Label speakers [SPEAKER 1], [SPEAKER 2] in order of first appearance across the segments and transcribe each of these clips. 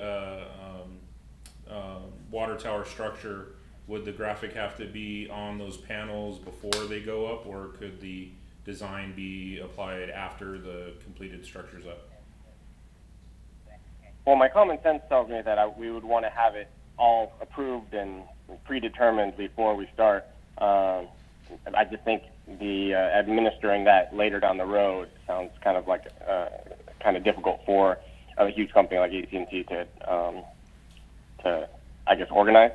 [SPEAKER 1] uh, um, water tower structure, would the graphic have to be on those panels before they go up, or could the design be applied after the completed structure's up?
[SPEAKER 2] Well, my common sense tells me that I, we would want to have it all approved and predetermined before we start. Um, I just think the uh, administering that later down the road sounds kind of like uh, kind of difficult for a huge company like AT&T to um, to I guess organize.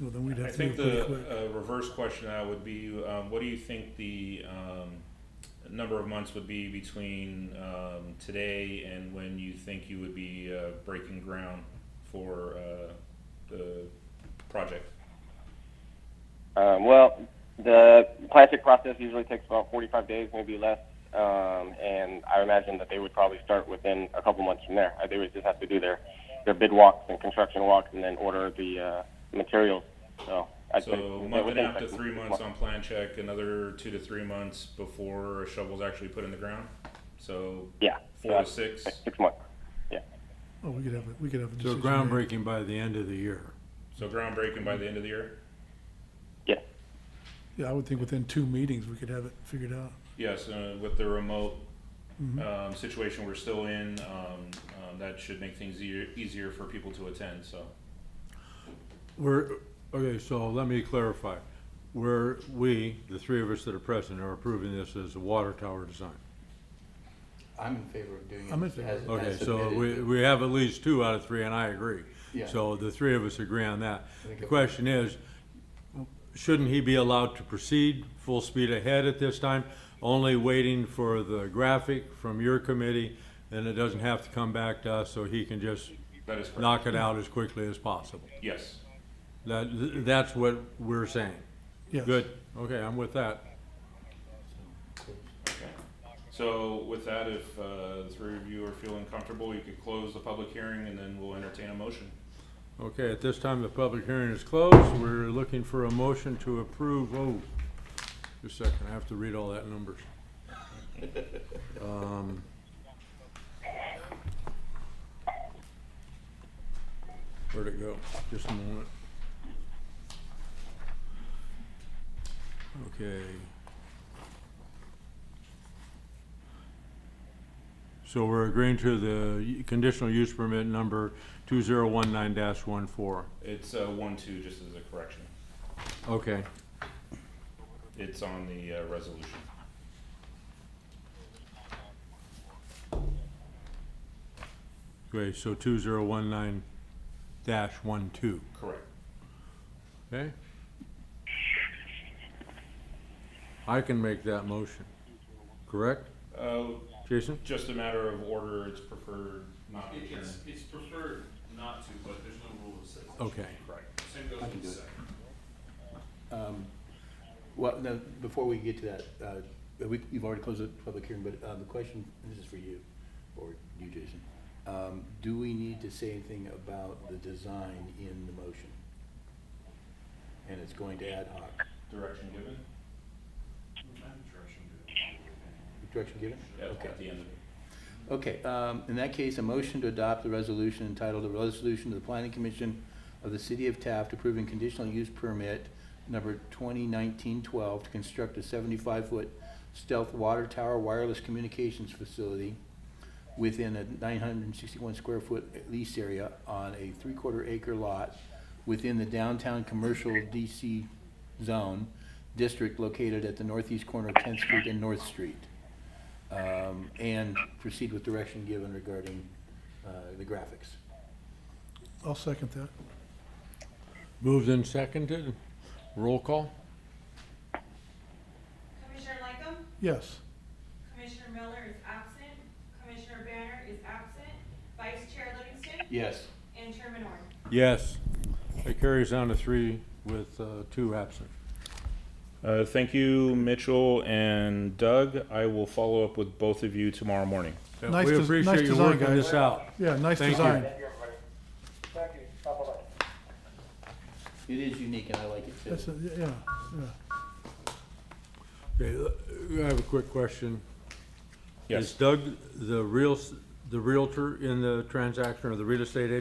[SPEAKER 3] Well, then we'd
[SPEAKER 1] I
[SPEAKER 3] have to
[SPEAKER 1] think
[SPEAKER 3] move pretty
[SPEAKER 1] the
[SPEAKER 3] quick.
[SPEAKER 1] uh, reverse question I would be, um, what do you think the um, number of months would be between um, today and when you think you would be uh, breaking ground for uh, the project?
[SPEAKER 2] Um, well, the plastic process usually takes about 45 days, maybe less, um, and I imagine that they would probably start within a couple months from there. Uh, They would just have to do their their bid walks and construction walks, and then order the uh, materials. So, I
[SPEAKER 1] So
[SPEAKER 2] think
[SPEAKER 1] a month and a
[SPEAKER 2] within
[SPEAKER 1] half to
[SPEAKER 2] six
[SPEAKER 1] three months on plan check, another two to three months before a shovel's actually put in the ground. So
[SPEAKER 2] Yeah,
[SPEAKER 1] four
[SPEAKER 2] uh,
[SPEAKER 1] to six.
[SPEAKER 2] six months. Yeah.
[SPEAKER 3] Oh, we could have, a we could have a
[SPEAKER 4] So
[SPEAKER 3] decision. made.
[SPEAKER 4] groundbreaking by the end of the year.
[SPEAKER 1] So groundbreaking by the end of the year?
[SPEAKER 2] Yes.
[SPEAKER 3] Yeah, I would think within two meetings, we could have it figured out.
[SPEAKER 1] Yes, uh, with the remote um, situation we're still in, um, um, that should make things easier, easier for people to attend, so.
[SPEAKER 4] We're, okay, so let me clarify. We're, we, the three of us that are present, are approving this as a water tower design.
[SPEAKER 5] I'm in favor of doing it.
[SPEAKER 3] I'm in favor.
[SPEAKER 5] as- as
[SPEAKER 4] Okay, so
[SPEAKER 5] submitted.
[SPEAKER 4] we, we have at least two out of three, and I agree.
[SPEAKER 5] Yeah.
[SPEAKER 4] So the three of us agree on that.
[SPEAKER 5] I think
[SPEAKER 4] The
[SPEAKER 5] it-
[SPEAKER 4] question is, shouldn't he be allowed to proceed full speed ahead at this time? Only waiting for the graphic from your committee, and it doesn't have to come back to us, so he can just
[SPEAKER 1] That is correct.
[SPEAKER 4] knock it out as quickly as possible.
[SPEAKER 1] Yes.
[SPEAKER 4] That, that's what we're saying.
[SPEAKER 3] Yes.
[SPEAKER 4] Good, okay, I'm with that.
[SPEAKER 1] Okay. So with that, if uh, the three of you are feeling comfortable, you could close the public hearing and then we'll entertain a motion.
[SPEAKER 4] Okay, at this time, the public hearing is closed. We're looking for a motion to approve, oh, just a second, I have to read all that numbers. Um, Where'd it go? Just a moment. Okay. So we're agreeing to the conditional use permit number two zero one nine dash one four.
[SPEAKER 1] It's uh, one, two, just as a correction.
[SPEAKER 4] Okay.
[SPEAKER 1] It's on the uh, resolution.
[SPEAKER 4] Okay, so two zero one nine dash one two,
[SPEAKER 1] Correct.
[SPEAKER 4] okay? I can make that motion, correct,
[SPEAKER 1] Uh,
[SPEAKER 4] Jason?
[SPEAKER 1] Just a matter of order, it's preferred not to adjourn.
[SPEAKER 6] It's, it's preferred not to, but there's no rule that says. it.
[SPEAKER 4] Okay.
[SPEAKER 1] Correct.
[SPEAKER 6] Same goes
[SPEAKER 5] I can
[SPEAKER 6] with
[SPEAKER 5] do
[SPEAKER 6] the
[SPEAKER 5] it.
[SPEAKER 6] second.
[SPEAKER 5] Well, no, before we get to that, uh, we, you've already closed the public hearing, but, uh, the question, this is for you, or you, Jason. Um, do we need to say anything about the design in the motion? And it's going to ad hoc,
[SPEAKER 1] Direction given?
[SPEAKER 6] Direction to-
[SPEAKER 5] direction given?
[SPEAKER 1] Yep,
[SPEAKER 5] Okay.
[SPEAKER 1] At the end of it.
[SPEAKER 5] Okay, um, in that case, a motion to adopt the resolution entitled a resolution to the planning commission of the city of Taft approving conditional use permit number twenty nineteen twelve to construct a seventy-five foot stealth water tower wireless communications facility within a nine hundred and sixty-one square foot lease area on a three-quarter acre lot within the downtown commercial DC zone district located at the northeast corner of Tenth Street and North Street um, and proceed with direction given regarding uh, the graphics.
[SPEAKER 3] I'll second that.
[SPEAKER 4] Moved and seconded, roll call?
[SPEAKER 7] Commissioner Latham,
[SPEAKER 3] Yes.
[SPEAKER 7] Commissioner Miller is absent, Commissioner Banner is absent, Vice Chair Livingston,
[SPEAKER 5] Yes.
[SPEAKER 7] and Chairman Orr.
[SPEAKER 4] Yes. It carries on to three with, uh, two absent.
[SPEAKER 1] Uh, thank you, Mitchell and Doug. I will follow up with both of you tomorrow morning.
[SPEAKER 4] Yeah,
[SPEAKER 3] Nice
[SPEAKER 4] We
[SPEAKER 3] des- nice
[SPEAKER 4] appreciate you
[SPEAKER 3] design,
[SPEAKER 4] working
[SPEAKER 3] guys.
[SPEAKER 4] this out.
[SPEAKER 3] Yeah, nice
[SPEAKER 4] Thank you.
[SPEAKER 3] design.
[SPEAKER 8] Thank you, bye-bye.
[SPEAKER 5] It is unique, and I like it too.
[SPEAKER 3] That's, a- yeah, yeah.
[SPEAKER 4] Okay, uh, I have a quick question. Is
[SPEAKER 1] Yes,
[SPEAKER 4] Doug the real, s- the Realtor in the transaction or the real estate agent?